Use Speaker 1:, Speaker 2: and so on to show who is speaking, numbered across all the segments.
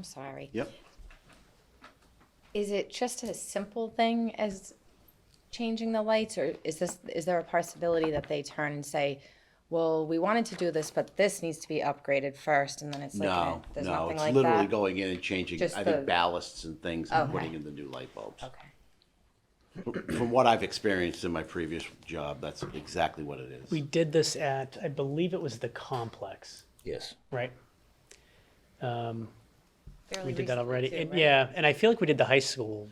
Speaker 1: I'm sorry.
Speaker 2: Yep.
Speaker 1: Is it just a simple thing as changing the lights, or is this, is there a possibility that they turn and say, well, we wanted to do this, but this needs to be upgraded first, and then it's like, eh,
Speaker 2: No,
Speaker 1: there's
Speaker 2: no,
Speaker 1: nothing
Speaker 2: it's
Speaker 1: like
Speaker 2: literally
Speaker 1: that?
Speaker 2: going in and changing, I
Speaker 1: Just
Speaker 2: think,
Speaker 1: the-
Speaker 2: ballasts and things and
Speaker 1: Okay.
Speaker 2: putting in the new light bulbs.
Speaker 1: Okay,
Speaker 2: From what I've experienced in my previous job, that's exactly what it
Speaker 3: We
Speaker 2: is.
Speaker 3: did this at, I believe it was the complex,
Speaker 4: Yes.
Speaker 3: right?
Speaker 1: Fairly
Speaker 3: We did that
Speaker 1: recently
Speaker 3: already.
Speaker 1: too,
Speaker 3: And-
Speaker 1: right?
Speaker 3: Yeah, and I feel like we did the high school.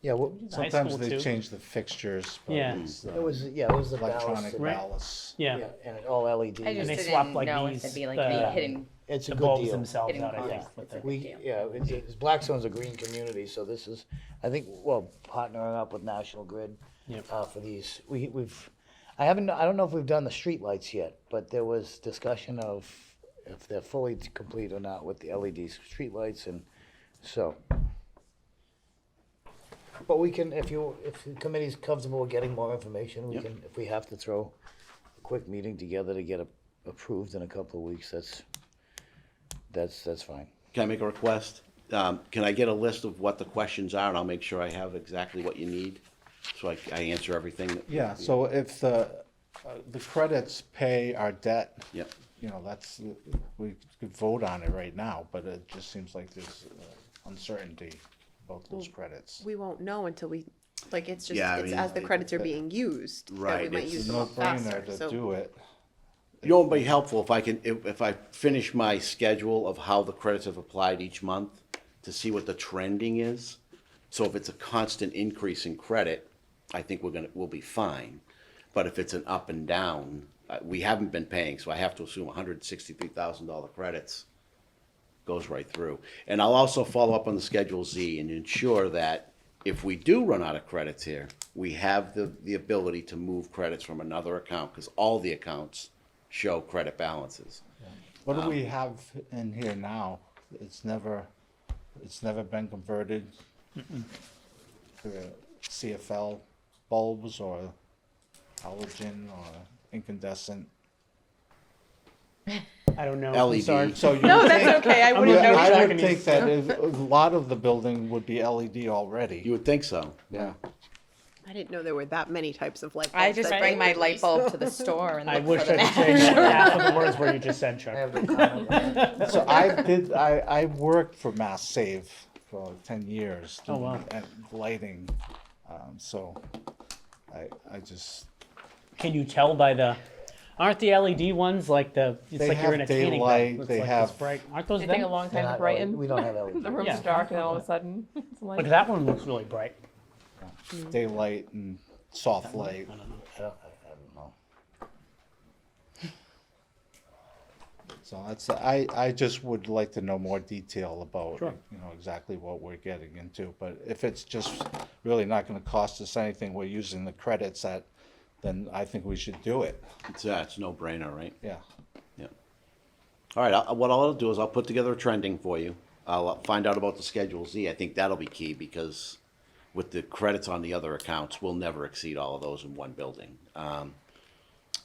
Speaker 5: Yeah, well,
Speaker 3: the high
Speaker 5: sometimes
Speaker 3: school
Speaker 5: they
Speaker 3: too.
Speaker 5: change the fixtures, but
Speaker 3: Yeah.
Speaker 5: it's
Speaker 4: It
Speaker 5: uh,
Speaker 4: was, yeah, it was the ballast.
Speaker 5: electronic
Speaker 4: and-
Speaker 3: Right.
Speaker 5: ballasts.
Speaker 3: Yeah,
Speaker 4: Yeah, and all LED.
Speaker 1: I just
Speaker 3: they
Speaker 1: didn't
Speaker 3: swap, like,
Speaker 1: know if
Speaker 3: these,
Speaker 1: it'd be like
Speaker 3: uh,
Speaker 1: the hidden,
Speaker 4: It's a
Speaker 3: the
Speaker 4: good
Speaker 3: bulbs
Speaker 4: deal.
Speaker 3: themselves
Speaker 1: Hidden
Speaker 3: out, I
Speaker 1: costs.
Speaker 3: think. with
Speaker 1: It's a
Speaker 3: the-
Speaker 1: good
Speaker 4: We,
Speaker 1: deal.
Speaker 4: yeah, it's, it's, Blackstone's a green community, so this is, I think, well, partnering up with National Grid
Speaker 3: Yep.
Speaker 4: uh, for these, we, we've, I haven't, I don't know if we've done the streetlights yet, but there was discussion of if they're fully complete or not with the LED streetlights and so. But we can, if you, if the committee's comfortable with getting more information, we can, if we have to throw a quick meeting together to get a- approved in a couple of weeks, that's, that's, that's fine.
Speaker 2: Can I make a request? Um, can I get a list of what the questions are and I'll make sure I have exactly what you need? So I, I answer everything. that-
Speaker 5: Yeah, so if the, uh, the credits pay our debt.
Speaker 2: Yep.
Speaker 5: You know, that's, we could vote on it right now, but it just seems like there's uh, uncertainty about those credits.
Speaker 6: we won't know until we, like, it's just,
Speaker 2: Yeah, I
Speaker 6: it's
Speaker 2: mean,
Speaker 6: as the
Speaker 2: it-
Speaker 6: credits are being used. that we
Speaker 2: Right,
Speaker 6: might
Speaker 2: it's
Speaker 6: use
Speaker 5: It's
Speaker 6: them
Speaker 5: no
Speaker 6: all
Speaker 5: brainer
Speaker 6: faster, so-
Speaker 5: to do it.
Speaker 2: You know, it'd be helpful if I can, if, if I finish my schedule of how the credits have applied each month to see what the trending is. So if it's a constant increase in credit, I think we're gonna, we'll be fine. But if it's an up and down, uh, we haven't been paying, so I have to assume hundred and sixty-three thousand dollar credits goes right through. And I'll also follow up on the Schedule Z and ensure that if we do run out of credits here, we have the, the ability to move credits from another account, because all the accounts show credit balances.
Speaker 3: Oh,
Speaker 5: What do
Speaker 3: Um,
Speaker 5: we have in here now? It's never, it's never been converted to CFL bulbs or halogen or incandescent.
Speaker 3: I don't know.
Speaker 4: E
Speaker 3: I'm sorry.
Speaker 2: LED,
Speaker 5: So you would think,
Speaker 6: Okay, I
Speaker 3: I'm
Speaker 6: wouldn't
Speaker 3: not-
Speaker 6: know.
Speaker 3: I'm not
Speaker 5: I would
Speaker 3: gonna
Speaker 5: think
Speaker 3: use-
Speaker 5: that if- a lot of the building would be LED
Speaker 2: you
Speaker 5: already.
Speaker 2: would think so.
Speaker 5: Yeah.
Speaker 6: I didn't know there were that many types of light bulbs.
Speaker 1: I just
Speaker 6: that
Speaker 1: bring my
Speaker 6: were
Speaker 1: light
Speaker 6: used.
Speaker 1: bulb to the store and
Speaker 3: I
Speaker 1: look
Speaker 3: wish
Speaker 1: for
Speaker 3: I
Speaker 1: the
Speaker 3: could say half of the words where you just said,
Speaker 4: I
Speaker 3: Chuck.
Speaker 4: have no comment.
Speaker 5: So I did, I, I worked for Mass Save for ten years.
Speaker 3: Oh, wow.
Speaker 5: doing, uh, Lighting, um, so I, I just,
Speaker 3: Can you tell by the, aren't the LED ones like the, it's
Speaker 5: They
Speaker 3: like you're
Speaker 5: have
Speaker 3: in a tanning
Speaker 5: daylight,
Speaker 3: bed. Looks
Speaker 5: they
Speaker 3: like
Speaker 5: have-
Speaker 3: this bright. Aren't those
Speaker 7: It take a
Speaker 3: them?
Speaker 7: long
Speaker 4: Not
Speaker 7: time to
Speaker 4: LED.
Speaker 7: brighten.
Speaker 4: We don't have LED.
Speaker 7: The room's
Speaker 3: Yeah.
Speaker 7: dark, and all of a sudden, it's like,
Speaker 3: But that one looks really bright.
Speaker 5: daylight and soft light.
Speaker 4: I don't, I don't know.
Speaker 5: So that's, I, I just would like to know more detail about,
Speaker 3: Sure.
Speaker 5: you know, exactly what we're getting into. But if it's just really not gonna cost us anything, we're using the credits at, then I think we should do it,
Speaker 2: It's, uh, it's no brainer, right?
Speaker 5: yeah.
Speaker 2: Yeah. All right, I- what I'll do is I'll put together a trending for you. I'll uh, find out about the Schedule Z. I think that'll be key because with the credits on the other accounts, we'll never exceed all of those in one building. Um,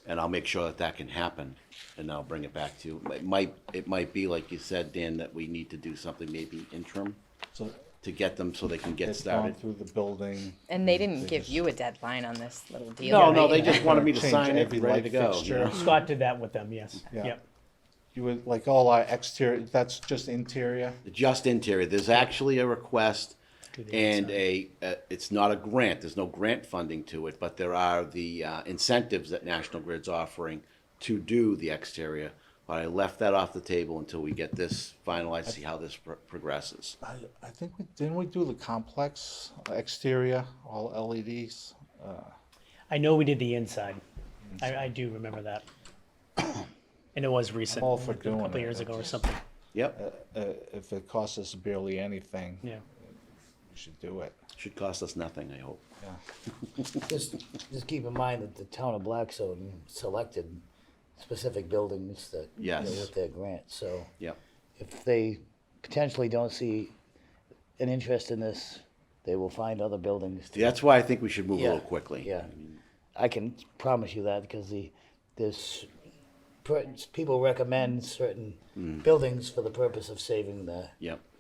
Speaker 2: And I'll make sure that that can happen and I'll bring it back to you. It might, it might be like you said, Dan, that we need to do something maybe interim
Speaker 5: So
Speaker 2: to get them so they can get
Speaker 5: it's gone
Speaker 2: started.
Speaker 5: through the building.
Speaker 1: And they didn't give you a deadline on this little deal.
Speaker 2: Oh, No,
Speaker 1: right?
Speaker 2: no, they just wanted me to
Speaker 5: Change
Speaker 2: sign it,
Speaker 5: every
Speaker 2: ready
Speaker 5: light
Speaker 2: to go. you
Speaker 5: fixture.
Speaker 2: know?
Speaker 3: Scott did that with them, yes.
Speaker 5: Yeah.
Speaker 3: Yep.
Speaker 5: You would, like all our exterior, that's just interior?
Speaker 2: Just interior. There's actually a request
Speaker 3: Do the
Speaker 2: and a, uh, it's not a grant, there's no grant funding to it, but there are the uh, incentives that National Grid's offering to do the exterior. But I left that off the table until we get this finalized, see how this pro- progresses.
Speaker 5: I, I think we, didn't we do the complex exterior, all E LEDs?
Speaker 3: I know we did the inside. I, I do remember that. And it was recent,
Speaker 5: all
Speaker 3: a
Speaker 5: for
Speaker 3: couple
Speaker 5: doing it,
Speaker 3: years
Speaker 5: I
Speaker 3: ago or
Speaker 5: just-
Speaker 3: something,
Speaker 2: Yep,
Speaker 5: Uh, if it costs us barely anything, we
Speaker 3: yeah.
Speaker 5: should do it.
Speaker 2: should cost us nothing, I hope.
Speaker 4: Just, just keep in mind that the town of Blackstone selected specific buildings that, you know,
Speaker 2: Yes.
Speaker 4: with their grant, so
Speaker 2: Yep,
Speaker 4: if they potentially don't see an interest in this, they will find other buildings. to-
Speaker 2: that's why I think we should move a little
Speaker 4: Yeah,
Speaker 2: quickly.
Speaker 4: Yeah, I can promise you that, because the, there's,
Speaker 2: Mm.
Speaker 4: per- people recommend certain buildings for the purpose of saving the
Speaker 2: Yep.